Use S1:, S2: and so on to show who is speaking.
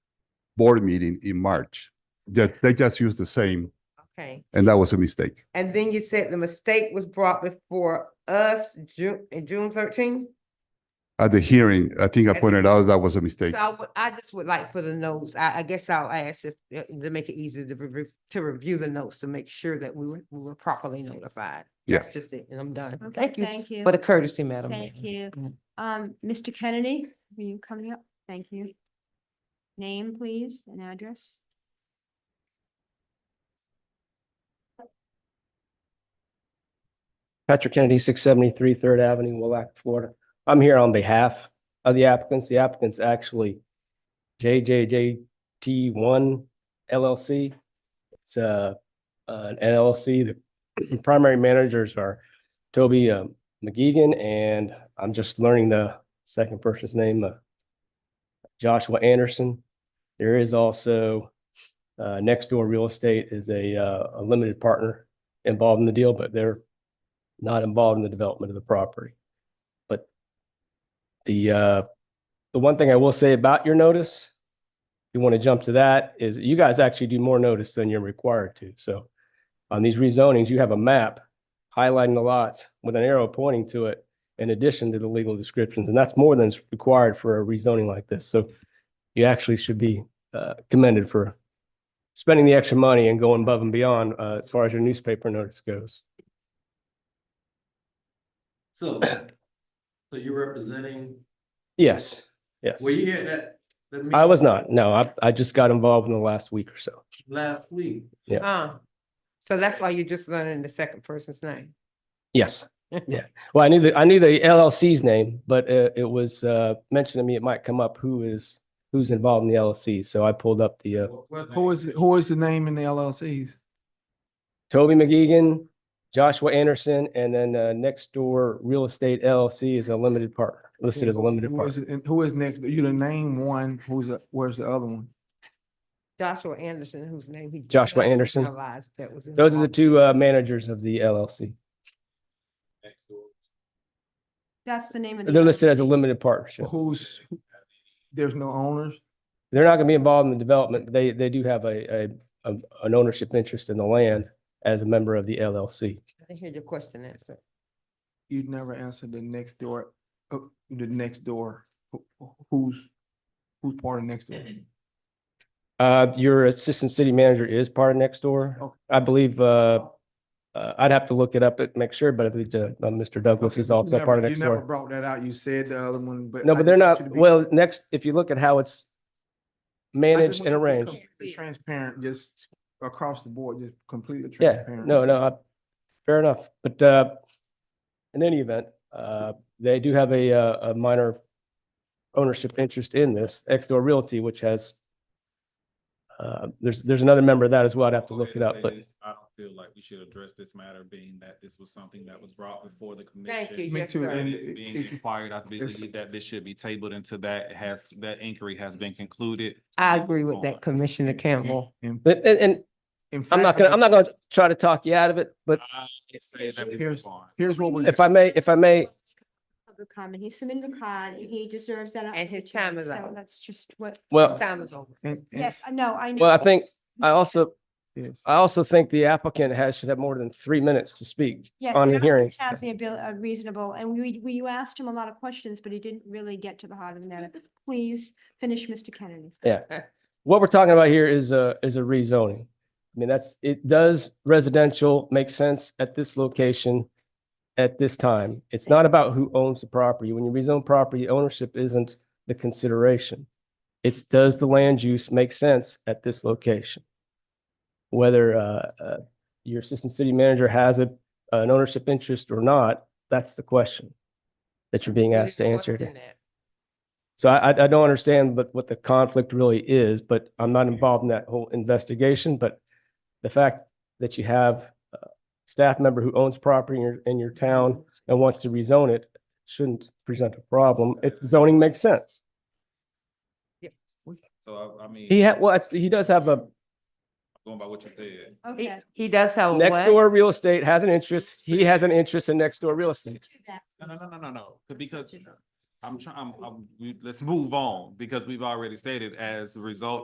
S1: board meeting in March. Ju- they just used the same,
S2: Okay,
S1: and that was a mistake.
S2: and then you said the mistake was brought before us June, in June thirteen?
S1: At the hearing, I think I pointed out that was a mistake.
S2: So I would, I just would like for the notes, I, I guess I'll ask if, uh, to make it easier to review, to review the notes to make sure that we were, we were properly notified.
S1: Yeah.
S2: That's just it, and I'm done.
S3: Okay,
S2: Thank you
S3: Thank you.
S2: for the courtesy, Madam.
S3: Thank
S2: Mayor.
S3: you.
S2: Mm.
S3: Um, Mr. Kennedy, are you coming up? Thank you. Name, please, and address.
S4: Patrick Kennedy, six seventy-three Third Avenue, Willac, Florida. I'm here on behalf of the applicants. The applicant's actually JJJT one LLC. It's uh, an LLC. The primary managers are Toby um, McGeegan and I'm just learning the second person's name, uh, Joshua Anderson. There is also uh, Next Door Real Estate is a uh, a limited partner involved in the deal, but they're not involved in the development of the property. But the, uh, the one thing I will say about your notice, if you want to jump to that, is you guys actually do more notice than you're required to. So on these rezonings, you have a map highlighting the lots with an arrow pointing to it in addition to the legal descriptions, and that's more than's required for a rezoning like this. So you actually should be uh, commended for spending the extra money and going above and beyond uh, as far as your newspaper notice goes.
S5: So, so you're representing,
S4: Yes, yes.
S5: were you here at that? that
S4: I was not. No, I, I just got involved in the last week or so.
S5: meeting Last week.
S4: Yeah.
S2: Uh, so that's why you're just learning the second person's name.
S4: Yes. Yeah. Well, I knew the, I knew the LLC's name, but uh, it was, uh, mentioned to me it might come up who is, who's involved in the LLC. So I pulled up the, uh,
S6: Who is, who is the name in the LLCs?
S4: Toby McGeegan, Joshua Anderson, and then, uh, next door real estate LLC is a limited partner, listed as a limited
S6: Who is
S4: partner.
S6: it- and Who is next? You to name one, who's, the- where's the other one?
S2: Joshua Anderson, whose name he.
S4: Joshua
S2: just
S4: Anderson.
S2: realized that was in
S4: Those are the
S2: wrong.
S4: two, uh, managers of the LLC.
S3: That's the name of the.
S4: They're listed as a
S3: LLC.
S4: limited partnership.
S6: Who's, there's no owners?
S4: they're not gonna be involved in the development. but They, they do have a, a, a- an ownership interest in the land as a member of the LLC.
S2: I didn't hear your question answered.
S6: You never answered the next door, uh, the next door. Who- Who's, who's part of next door?
S4: Uh, your assistant city manager is part of Nextdoor.
S6: Okay.
S4: I believe, uh, uh, I'd have to look it up and make sure, but I believe, uh, Mr. Douglas
S6: Okay,
S4: is
S6: you
S4: also
S6: never-
S4: part of
S6: You never
S4: Nextdoor.
S6: brought that out. You said the other one, but.
S4: No,
S6: I
S4: but
S6: just
S4: they're
S6: want you
S4: not,
S6: to be- I
S4: well, next, if you look at how it's
S6: just
S4: managed and
S6: want you to be
S4: arranged.
S6: completely Transparent, just across the board, just completely
S4: Yeah,
S6: transparent.
S4: no, no, I- fair enough. But uh, in any event, uh, they do have a, uh, a minor ownership interest in this, Exor Realty, which has uh, there's, there's another member of that as well. I'd have to
S7: Go
S4: look
S7: ahead
S4: it
S7: and
S4: up,
S7: say
S4: but
S7: this. I don't feel like we should address this matter being that this was something that was brought before the commission.
S2: Thank you.
S6: Me
S2: Yes,
S6: too,
S2: sir.
S6: and
S7: And
S6: it-
S7: it's being
S6: it-
S7: inquired, I
S6: it's-
S7: believe that this should be tabled until that has, that inquiry has been concluded.
S2: I agree with that, Commissioner
S6: and-
S2: Campbell.
S6: and-
S4: but, and, and
S6: in
S4: I'm not
S6: fact,
S4: gonna, I'm not gonna try to talk you out of it, but
S7: I say that we
S6: Here's-
S7: move on.
S6: Here's what we.
S4: if I may, if I may,
S3: Public comment. He submitted a card. He deserves that.
S2: And his
S3: opportunity,
S2: time is
S3: so
S2: up.
S3: That's just what.
S4: well,
S2: Time is over.
S6: and- and-
S3: Yes, I know, I know.
S4: well, I think, I also,
S6: Yes.
S4: I also think the applicant has, should have more than three minutes to speak
S3: Yes,
S4: on
S3: the
S4: a hearing.
S3: applicant Has the ability, reasonable, and we, we you asked him a lot of questions, but he didn't really get to the heart of the matter. Please finish, Mr. Kennedy.
S4: what we're talking about here is a, is a rezoning. I mean, that's, it does residential make sense at this location at this time. It's not about who owns the property. When you rezone property, ownership isn't the consideration. It's does the land use make sense at this location? Whether, uh, uh, your assistant city manager has a, an ownership interest or not, that's the question that you're being
S2: Really
S4: asked to answer.
S2: question
S4: today.
S2: that.
S4: So I, I I don't understand what, what the conflict really is, but I'm not involved in that whole investigation, but the fact that you have a staff member who owns property in your, in your town and wants to rezone it shouldn't present a problem if zoning makes sense.
S7: So I, I mean.
S4: He had, well, it's- he does have a,
S7: Going by what you said.
S2: He,
S3: Okay.
S2: he does have a
S4: next
S2: what?
S4: door real estate has an interest, he has an interest in next door real estate.
S3: Do that.
S7: No, no, no, no, no, no, but because I'm trying, I'm, I'm, we, let's move on, because we've already stated as a result